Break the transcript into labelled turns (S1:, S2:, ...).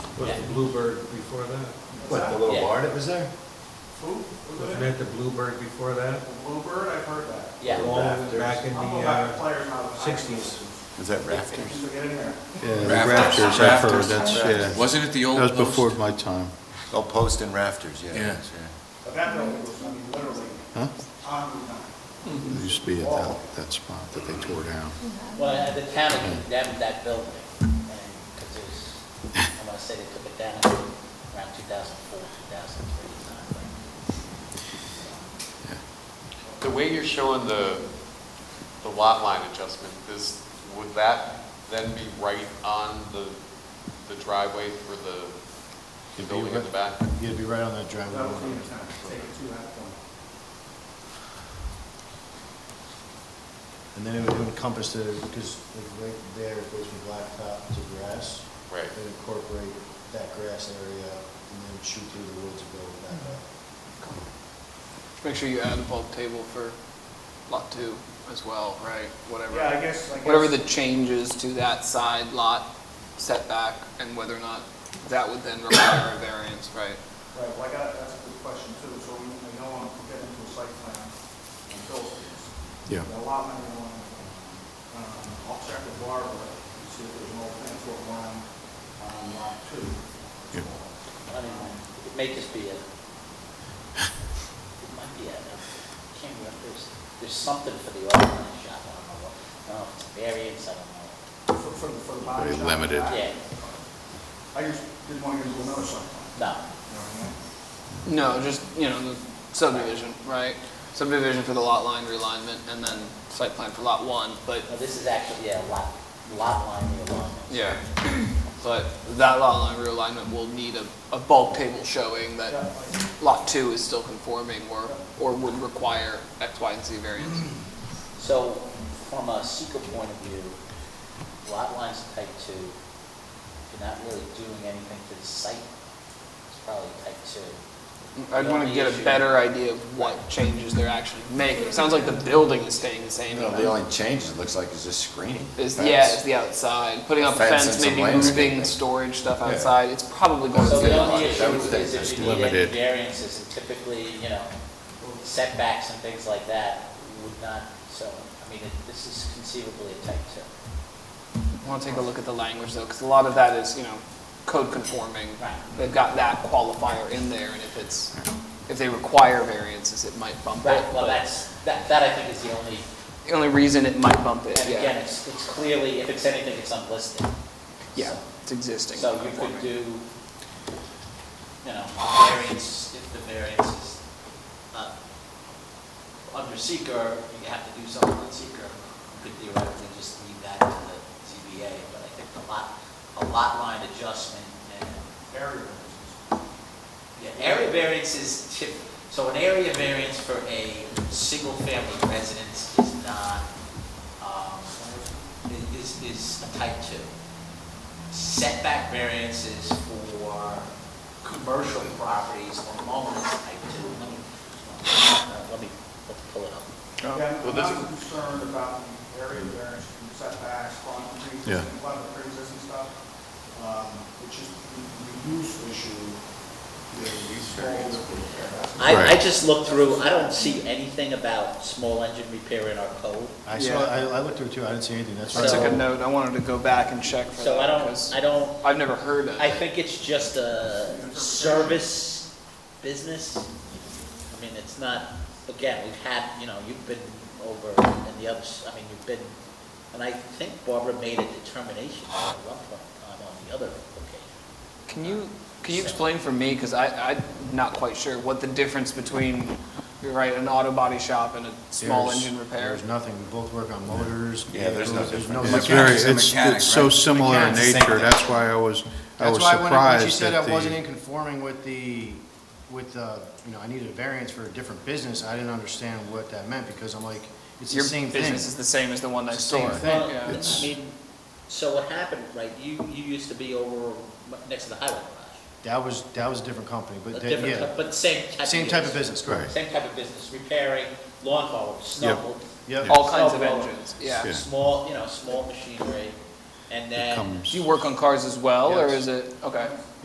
S1: Was
S2: Yeah.
S1: the Bluebird before that?
S3: What, the little
S2: Yeah.
S3: bar that was there?
S4: Who?
S1: Wasn't that the Bluebird before that?
S4: Bluebird, I've heard that.
S2: Yeah,
S1: Long
S3: Rafters.
S1: Back in the
S4: I'll go back to
S1: uh,
S4: players now.
S1: sixties.
S5: Is that
S4: Can
S5: rafters?
S4: we get in there?
S6: Yeah, the
S5: Rafters.
S6: rafters, I've heard,
S5: Rafters.
S6: that's, yeah.
S5: Wasn't it the old
S6: That was
S5: post?
S6: before my time.
S3: Oh, post and rafters, yeah.
S5: Yeah.
S3: that's right.
S4: But that building was, I mean, literally,
S6: Huh?
S4: on the nine.
S6: It used to be at that, that spot that they tore down.
S2: well, uh, the town condemned that building, because it was, I want to say they took it down around 2004, 2003.
S7: The way you're showing the, the lot line adjustment, is, would that then be right on the, the driveway for the,
S6: It'd
S7: the
S6: be
S7: building in
S6: right-
S7: the back?
S6: You'd be right on that
S4: That was the intent, take it to that point.
S8: And then it would encompass the, because like right there it goes from blacktop to grass.
S7: Right.
S8: It would incorporate that grass area and then shoot through the woods and go back up.
S9: Make sure you add a bulk table for lot two as well, right? Whatever.
S4: Yeah, I guess, I guess.
S9: Whatever the changes to that side lot setback and whether or not that would then require a variance, right?
S4: Right, well, I got, that's a good question too, so we, we don't want to get into a site plan and build things.
S6: Yeah.
S4: A lot of them, um, I'll check with Barbara and see if there's an old plan for one on lot two.
S6: Yeah.
S2: I mean, it may just be a, it might be a, I can't remember, there's, there's something for the auto body shop, I don't know what, I don't know if it's a variance, I don't
S4: For, for, the- for the body
S6: Very
S4: shop.
S6: limited.
S4: I-
S2: know. Yeah,
S4: I just didn't want to get into another site plan.
S2: no,
S4: you know what I mean?
S9: No, just, you know, the subdivision, right? Subdivision for the lot line realignment and then site plan for lot one, but,
S2: no, this is actually, yeah, lot, lot line realignment.
S9: yeah. But that lot line realignment will need a, a bulk table showing
S4: Yeah,
S9: that
S4: like,
S9: lot two is still conforming or, or would require X, Y, and Z variance.
S2: So from a seeker point of view, lot lines type two, you're not really doing anything to the site. It's probably type two.
S9: I'd want to get a better idea of what changes they're actually making. It sounds like the building is staying the same.
S3: You know, the only change it looks like is just screening.
S9: Is,
S3: Fence.
S9: yeah, it's the outside, putting up a
S3: Fence and
S9: fence,
S3: some
S9: maybe
S3: landscaping.
S9: moving storage stuff outside, it's probably going
S2: So
S9: to be
S2: the
S9: a
S2: only
S9: lot.
S2: issue
S3: That would take
S2: is if
S3: just
S2: you need any
S6: limited.
S2: variances, and typically, you know, setbacks and things like that would not, so, I mean, it- this is conceivably a type two.
S9: I want to take a look at the language though, because a lot of that is, you know, code conforming.
S2: Right.
S9: They've got that qualifier in there, and if it's, if they require variances, it might bump it.
S2: Well,
S9: but
S2: that's, that, that I think is the only,
S9: The only reason it might bump
S2: and
S9: it,
S2: again,
S9: yeah,
S2: it's, it's clearly, if it's anything, it's unlisted.
S9: yeah,
S2: So-
S9: it's existing.
S2: So you
S9: conforming.
S2: could do, you know, variance, if the variance is, uh, under seeker, you have to do something on seeker. You could theoretically just leave that to the ZBA, but I think a lot, a lot line adjustment and,
S4: area variances.
S2: yeah, area variance is tip, so an area variance for a single-family residence is not, um, i- is, is a type two setback variances for commercial properties or moments, I do, let me, uh, let me, let's pull it up.
S4: Again,
S7: Well,
S4: I'm
S7: this
S4: not concerned about the area variance from setbacks, front,
S6: Yeah.
S4: pre-existing, a lot of the pre-existing stuff. Um, It's just the the use issue is solved with the variance.
S2: I, I
S6: Right.
S2: just looked through, I don't see anything about small engine repair in our code,
S8: I saw, I, I looked through it too, I didn't see anything, that's
S9: I
S8: why.
S2: So-
S9: took a note, I wanted to go back and check for
S2: so I
S9: that,
S2: don't,
S9: because
S2: I don't,
S9: I've never heard of it.
S2: I think it's just a service business. I mean, it's not, again, we've had, you know, you've been over in the others, I mean, you've been, and I think Barbara made a determination at one point in time on the other location.
S9: Can you, can you explain for me, because I, I'm not quite sure, what the difference between, you're right, an auto body shop and a small
S8: There's-
S9: engine repair?
S8: There's nothing, we both work on motors.
S3: Yeah, there's no
S8: vehicles, there's
S3: difference.
S6: It's
S3: Yeah.
S6: very,
S3: Mechanic's a
S6: it's,
S3: mechanic,
S6: it's so
S3: right?
S6: similar in
S3: Mechanic's the same
S6: nature,
S3: thing.
S6: that's why I was, I
S8: That's
S6: was
S8: why when, when she
S6: surprised
S8: said
S6: that
S8: I wasn't in
S6: the,
S8: conforming with the, with the, you know, I needed a variance for a different business, I didn't understand what that meant, because I'm like, it's the
S9: Your
S8: same thing.
S9: business is the same as the one next
S8: It's the same
S9: door.
S8: thing.
S2: Well,
S9: Yeah.
S2: I mean, so what happened, right, you, you used to be over next to the highway
S8: That was, that was a different company,
S2: garage. A
S8: but, that-
S2: different,
S8: yeah,
S2: type- but same type of.
S8: same type of business, correct.
S2: Same type of business, repairing lawn mowers, snow.
S8: Yep.
S9: All kinds of
S2: Snowblower.
S9: engines, yeah.
S6: Yeah.
S2: Small, you know, you know, small machinery, and then.
S6: comes,
S9: Do you work on cars as well, or
S8: Yes.
S9: is it, okay,